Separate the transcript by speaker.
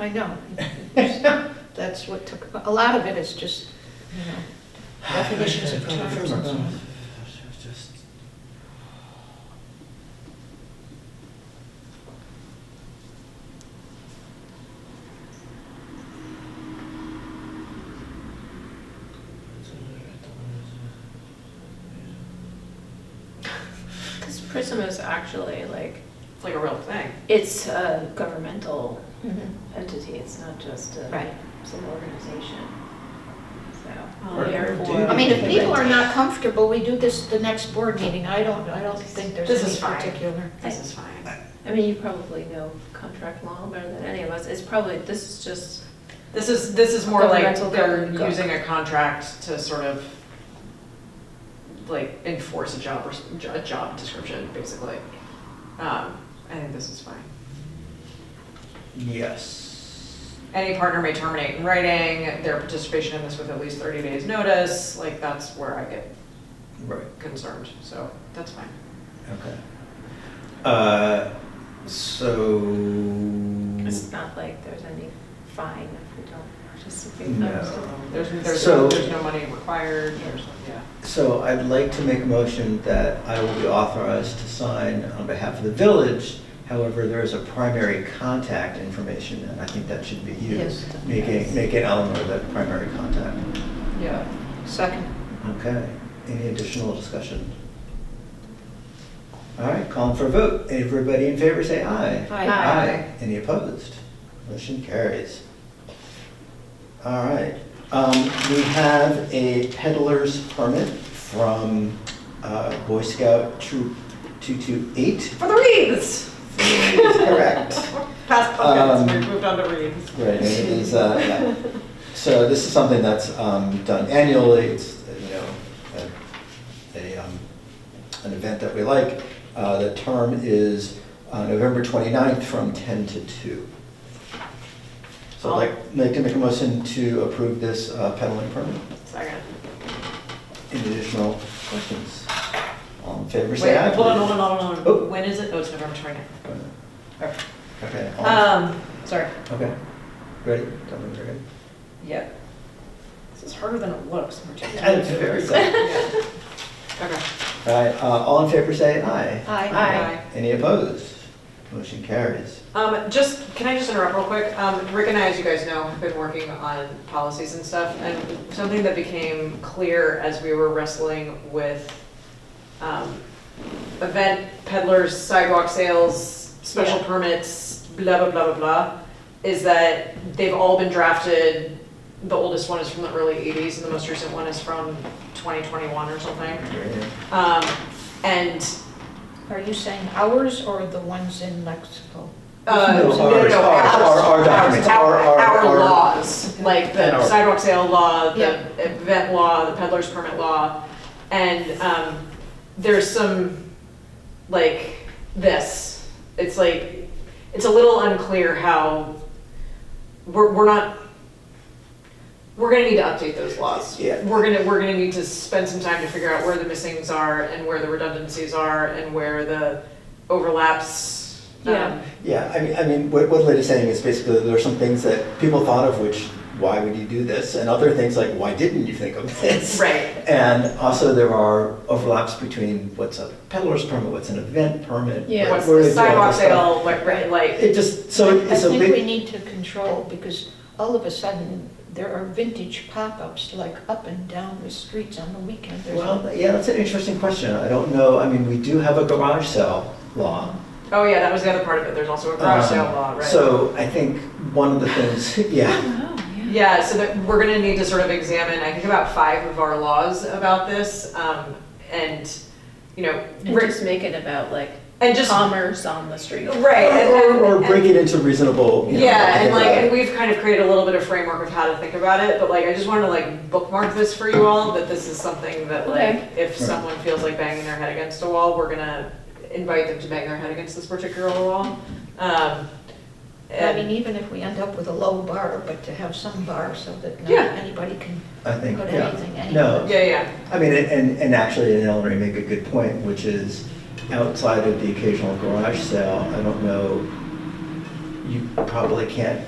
Speaker 1: I know. That's what took, a lot of it is just, you know, definitions of terms and so on.
Speaker 2: Just-
Speaker 3: Because Prism is actually like,
Speaker 4: It's like a real thing.
Speaker 3: it's a governmental entity, it's not just
Speaker 1: Right.
Speaker 3: a, some organization. So,
Speaker 4: Or-
Speaker 3: therefore.
Speaker 1: I mean, if people are not comfortable, we do this the next board meeting. I don't, I don't think there's
Speaker 4: This is
Speaker 1: any
Speaker 4: fine.
Speaker 1: particular.
Speaker 4: This is fine.
Speaker 3: I mean, you probably know contract law better than any of us, it's probably, this is just,
Speaker 4: This is, this is more like
Speaker 3: Governmental
Speaker 4: they're
Speaker 3: government.
Speaker 4: using a contract to sort of like enforce a job, res- jo- a job description, basically. Um, I think this is fine.
Speaker 2: Yes.
Speaker 4: Any partner may terminate in writing their participation in this with at least thirty days' notice, like that's where I get
Speaker 2: Right,
Speaker 4: concerned, so that's fine.
Speaker 2: okay. Uh, so. Mm.
Speaker 3: it's not like there's any fine if we don't participate.
Speaker 2: No.
Speaker 4: There's, there's,
Speaker 2: So-
Speaker 4: there's no money required, there's, yeah.
Speaker 2: So I'd like to make a motion that I will be authorized to sign on behalf of the village. However, there is a primary contact information, and I think that should be you.
Speaker 1: Yes.
Speaker 2: Make it, make it Eleanor the primary contact.
Speaker 4: Yeah.
Speaker 1: Second.
Speaker 2: Okay, any additional discussion? All right, calling for a vote. Everybody in favor, say aye.
Speaker 1: Aye.
Speaker 2: Aye. Any opposed? Motion carries. All right, um, we have a peddler's permit from, uh, Boy Scout Troop two-two-eight.
Speaker 4: For the reeds!
Speaker 2: Correct.
Speaker 4: Past pumpkins,
Speaker 2: Um,
Speaker 4: we've moved on to reeds.
Speaker 2: Right, and it is, uh, yeah. So this is something that's um, done annually, it's, you know, a- a, um, an event that we like. Uh, The term is uh, November 29th from 10 to 2. So I'd like, like to make a motion to approve this uh, peddling permit.
Speaker 4: Second.
Speaker 2: Any additional questions? All in favor,
Speaker 4: Wait,
Speaker 2: say aye.
Speaker 4: hold on,
Speaker 2: please.
Speaker 4: hold on, hold on, hold
Speaker 2: Oh.
Speaker 4: on. When is it? Oh, it's November 29th.
Speaker 2: Okay, all-
Speaker 4: Um, sorry.
Speaker 2: okay, ready? Don't worry, ready?
Speaker 4: Yeah. This is harder than it looks. we're taking-
Speaker 2: It's very good.
Speaker 4: Yeah. Okay.
Speaker 2: All right, uh, all in favor, say aye.
Speaker 1: Aye.
Speaker 4: Aye.
Speaker 2: Any opposed? Motion carries.
Speaker 4: Um, just, can I just interrupt real quick? Um, Rick and I, as you guys know, have been working on policies and stuff, and something that became clear as we were wrestling with, um, event peddlers, sidewalk sales, special
Speaker 3: Yeah.
Speaker 4: permits, blah, blah, blah, blah, blah, is that they've all been drafted, the oldest one is from the early eighties, and the most recent one is from twenty twenty-one or something. Um, and
Speaker 1: Are you saying ours or the ones in Lexington?
Speaker 4: Uh,
Speaker 2: No,
Speaker 4: no, no,
Speaker 2: ours, ours,
Speaker 4: no,
Speaker 2: our-
Speaker 4: ours,
Speaker 2: our
Speaker 4: ours,
Speaker 2: documents, our-
Speaker 4: Our,
Speaker 2: our- our-
Speaker 4: our laws, like
Speaker 2: And
Speaker 4: the
Speaker 2: our-
Speaker 4: sidewalk sale law, the
Speaker 1: Yeah.
Speaker 4: event law, the peddler's permit law. And, um, there's some, like, this, it's like, it's a little unclear how, we're, we're not, we're gonna need to update those laws.
Speaker 2: Yeah.
Speaker 4: We're gonna, we're gonna need to spend some time to figure out where the missings are and where the redundancies are and where the overlaps. um,
Speaker 3: Yeah.
Speaker 2: Yeah, I mean, I mean, what, what Lynn is saying is basically there are some things that people thought of, which, why would you do this? And other things like, why didn't you think of this?
Speaker 4: Right.
Speaker 2: And also there are overlaps between what's a peddler's permit, what's an event permit.
Speaker 3: Yeah.
Speaker 2: what-
Speaker 4: What's
Speaker 2: where
Speaker 4: the
Speaker 2: is all
Speaker 4: sidewalk
Speaker 2: this stuff.
Speaker 4: sale, like, right, like,
Speaker 2: It just, so
Speaker 1: I
Speaker 2: it's a
Speaker 1: think we
Speaker 2: big,
Speaker 1: need to control, because all of a sudden, there are vintage pop-ups, like up and down the streets on the weekend. There's
Speaker 2: well, yeah, that's an interesting question. I don't know, I mean, we do have a garage sale law.
Speaker 4: oh yeah, that was the other part of it, there's also a garage sale
Speaker 2: Um,
Speaker 4: law, right?
Speaker 2: So I think one of the things, yeah.
Speaker 1: Oh,
Speaker 4: Yeah, so that, we're gonna need to sort of examine, I think about five of our laws about this, um, and, you know,
Speaker 3: And
Speaker 4: re-
Speaker 3: just make it about like
Speaker 4: and just, right,
Speaker 3: commerce on the street.
Speaker 4: and-
Speaker 2: Or,
Speaker 4: and-
Speaker 2: or
Speaker 4: and-
Speaker 2: break it into reasonable. you know,
Speaker 4: Yeah, and like,
Speaker 2: uh,
Speaker 4: and we've kind of created a little bit of framework of how to think about it, but like, I just wanna like bookmark this for you all, that this is something that
Speaker 3: Okay.
Speaker 4: like, if
Speaker 2: Right.
Speaker 4: someone feels like banging their head against a wall, we're gonna invite them to bang their head against this particular wall. Um,
Speaker 1: I
Speaker 4: and-
Speaker 1: mean, even if we end up with a low bar, but to have some bar so that not
Speaker 4: Yeah.
Speaker 1: anybody can,
Speaker 2: I think,
Speaker 1: put
Speaker 2: yeah.
Speaker 1: anything in.
Speaker 2: No,
Speaker 4: Yeah, yeah.
Speaker 2: I mean, and, and actually, and Eleanor, you make a good point, which is outside of the occasional garage sale, I don't know, you probably can't